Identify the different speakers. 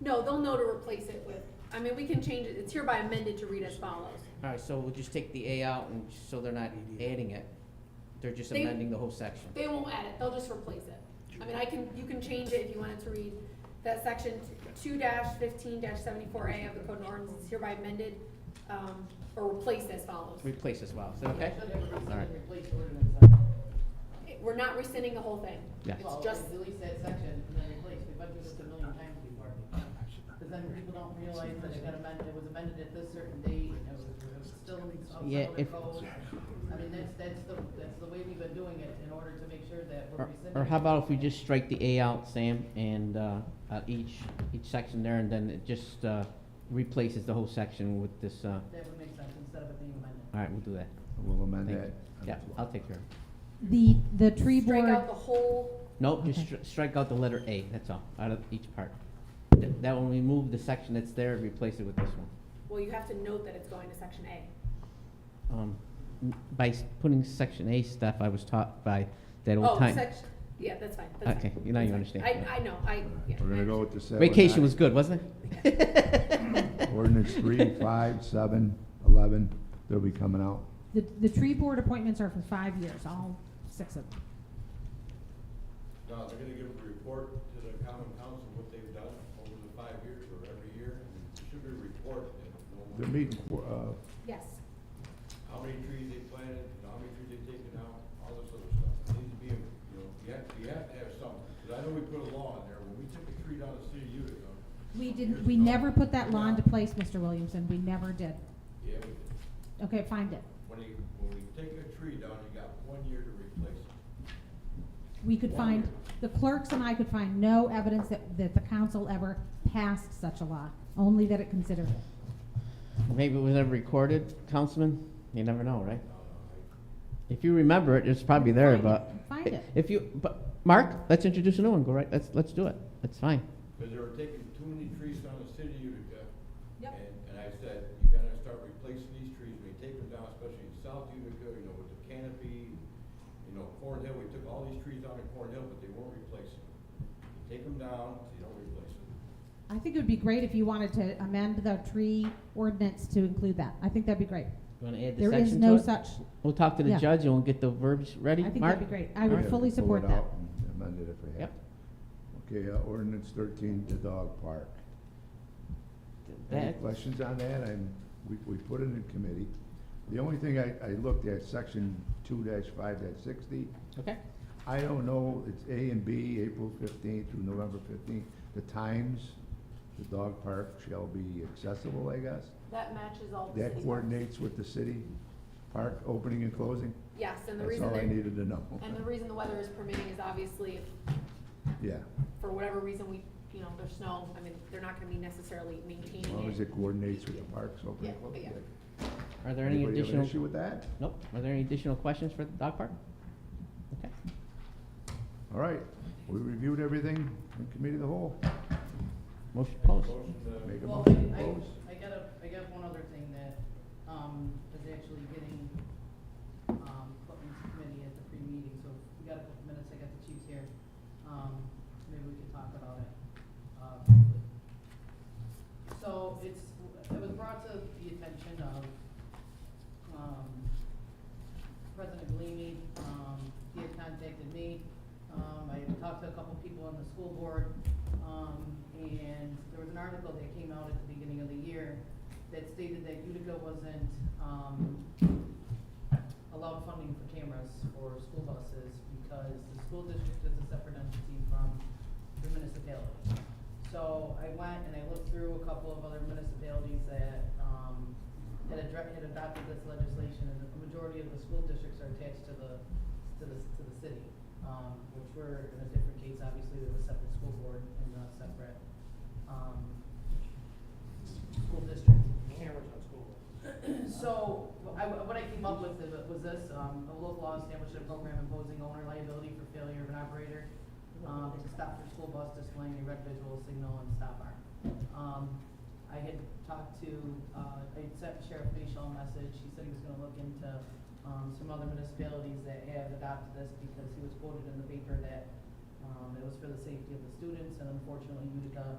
Speaker 1: No, they'll know to replace it with, I mean, we can change it, it's hereby amended to read as follows.
Speaker 2: Alright, so we'll just take the A out and, so they're not adding it, they're just
Speaker 1: They-
Speaker 2: amending the whole section.
Speaker 1: They won't add it, they'll just replace it. I mean, I can, you can change it if you wanted to read that section two fifteen seventy-four A of the code of ordinances is hereby amended, um, or replaced as follows.
Speaker 2: Replace as well, is that okay?
Speaker 3: Should have rescinded
Speaker 2: Alright.
Speaker 3: and replaced ordinance section.
Speaker 1: We're not rescinding the whole thing.
Speaker 2: Yeah.
Speaker 1: It's
Speaker 3: uh, Well,
Speaker 1: just,
Speaker 3: delete that section and then replace, we've been through this a million times before. Because then people don't realize that it got amended, it was amended at this certain date, and it was it was still
Speaker 2: Yeah,
Speaker 3: outside of the
Speaker 2: if-
Speaker 3: code. I mean, that's, that's the, that's the way we've been doing it in order to make sure that we're
Speaker 2: Or,
Speaker 3: rescinding.
Speaker 2: or how about if we just strike the A out, Sam, and, uh, uh, each, each section there, and then it just, uh, replaces the whole section with this, uh,
Speaker 3: That would make sense instead of it being amended.
Speaker 2: alright, we'll do that.
Speaker 4: We'll amend
Speaker 2: Thank
Speaker 4: that.
Speaker 2: you. Yeah, I'll take care of it.
Speaker 5: The, the tree
Speaker 1: strike
Speaker 5: board,
Speaker 1: out the whole
Speaker 2: Nope, just
Speaker 5: Okay.
Speaker 2: stri- strike out the letter A, that's all, out of each part. Th- That one, remove the section that's there, replace it with this one.
Speaker 1: Well, you have to note that it's going to section A.
Speaker 2: Um, n- By s- putting section A stuff, I was taught by that
Speaker 1: Oh,
Speaker 2: old time.
Speaker 1: section, yeah, that's fine, that's fine.
Speaker 2: Okay, you- now you
Speaker 1: That's fine.
Speaker 2: understand.
Speaker 1: I, I know, I, yeah.
Speaker 4: We're gonna go with the seven.
Speaker 2: Vacation was good, wasn't
Speaker 4: nine.
Speaker 2: it?
Speaker 4: Ordinance three, five, seven, eleven, they'll be coming out.
Speaker 5: the, the tree board appointments are for five years, all six of them.
Speaker 6: No, they're gonna give a report to the common council what they've done over the five years or every year, and it should be reported. and no more-
Speaker 4: They're meeting, for, uh,
Speaker 1: Yes,
Speaker 6: How many trees they planted, and how many trees they've taken out, all this other stuff. It needs to be, you know, you have, you have to have something, because I know we put a law in there, when we took a tree down the city of Utica.
Speaker 5: We
Speaker 6: some
Speaker 5: didn't,
Speaker 6: years
Speaker 5: we
Speaker 6: ago-
Speaker 5: never put that law into
Speaker 6: Yeah.
Speaker 5: place, Mr. Williamson, we never did.
Speaker 6: Yeah, we did.
Speaker 5: Okay, find it.
Speaker 6: when you, when we take a tree down, you got one year to replace it.
Speaker 5: We could find, the clerks and I could find no evidence that, that the council ever passed such a law, only that it considered it.
Speaker 2: Maybe it was never recorded, Councilman? You never know, right?
Speaker 6: Uh, I-
Speaker 2: If you remember it, it's probably there,
Speaker 5: Find it.
Speaker 2: but.
Speaker 5: Find it.
Speaker 2: If you, but, Mark, let's introduce a new one, go right, let's, let's do it, that's fine.
Speaker 6: Because they were taking too many trees down the city of Utica.
Speaker 1: Yep.
Speaker 6: And, and I said, you gotta start replacing these trees, we take them down, especially in South Utica, you know, with the canopy, you know, Cornhill, we took all these trees down in Cornhill, but they weren't replacing them. You Take them down, you don't replace them.
Speaker 5: I think it would be great if you wanted to amend the tree ordinance to include that, I think that'd be great.
Speaker 2: You wanna add the
Speaker 5: There is
Speaker 2: section to
Speaker 5: no
Speaker 2: it?
Speaker 5: such,
Speaker 2: We'll talk to the
Speaker 5: Yeah.
Speaker 2: judge and we'll get the verbs ready,
Speaker 5: I
Speaker 2: Mark?
Speaker 5: think that'd be great, I
Speaker 2: All
Speaker 5: would
Speaker 2: right.
Speaker 5: fully
Speaker 4: Pull it
Speaker 5: support that.
Speaker 4: out and Amend it if we have.
Speaker 2: Yep.
Speaker 4: to. Okay, uh, ordinance thirteen, the dog park. Any
Speaker 2: That-
Speaker 4: questions on that? I'm, we, we put it in committee. The only thing I, I looked at, section two dash five dash sixty,
Speaker 2: Okay,
Speaker 4: I don't know, it's A and B, April fifteenth through November fifteenth, the times the dog park shall be accessible, I guess.
Speaker 1: that matches all the city
Speaker 4: That
Speaker 1: parks.
Speaker 4: coordinates with the city park opening and closing.
Speaker 1: Yes, and the
Speaker 4: That's
Speaker 1: reason
Speaker 4: all I
Speaker 1: that,
Speaker 4: needed to know.
Speaker 1: and the reason the weather is permitting is obviously if,
Speaker 4: Yeah,
Speaker 1: for whatever reason, we, you know, there's snow, I mean, they're not gonna be necessarily
Speaker 4: as long
Speaker 1: maintaining
Speaker 4: as
Speaker 1: it.
Speaker 4: it coordinates with the parks opening
Speaker 1: Yeah,
Speaker 4: and closing.
Speaker 1: yeah.
Speaker 2: are there any
Speaker 4: Anybody have an
Speaker 2: additional,
Speaker 4: issue with that?
Speaker 2: nope, are there any additional questions for the dog park? Okay,
Speaker 4: All right, we reviewed everything in committee of the whole.
Speaker 2: motion closed.
Speaker 6: Motion to-
Speaker 4: Make a
Speaker 3: Well,
Speaker 4: motion to
Speaker 3: I-
Speaker 4: close.
Speaker 3: I, I got a, I got one other thing that, um, is actually getting, um, put into committee at the pre-meeting, so we got a couple minutes, I got the chiefs here. Um, maybe we can talk about it, uh, briefly. So it's, it was brought to the attention of, um, President Galimi, um, he had contacted me. Um, I had talked to a couple people on the school board, um, and there was an article that came out at the beginning of the year that stated that Utica wasn't, um, allowed funding for cameras for school buses because the school district is a separate entity from the municipality. So I went and I looked through a couple of other municipalities that, um, had addre- had adopted this legislation, and the majority of the school districts are attached to the, to the, to the city. Um, which were in a different case, obviously, with a separate school board and not separate, um, school district.
Speaker 7: cameras on school.
Speaker 3: So, wh- I, what I came up with is- was this, um, a local law established a program imposing owner liability for failure of an operator, um, to stop for school bus displaying a red visual signal and stop arm. Um, I had talked to, uh, I had sent Sheriff Bayshall a message, he said he was gonna look into, um, some other municipalities that have adopted this because he was quoted in the paper that, um, it was for the safety of the students, and unfortunately Utica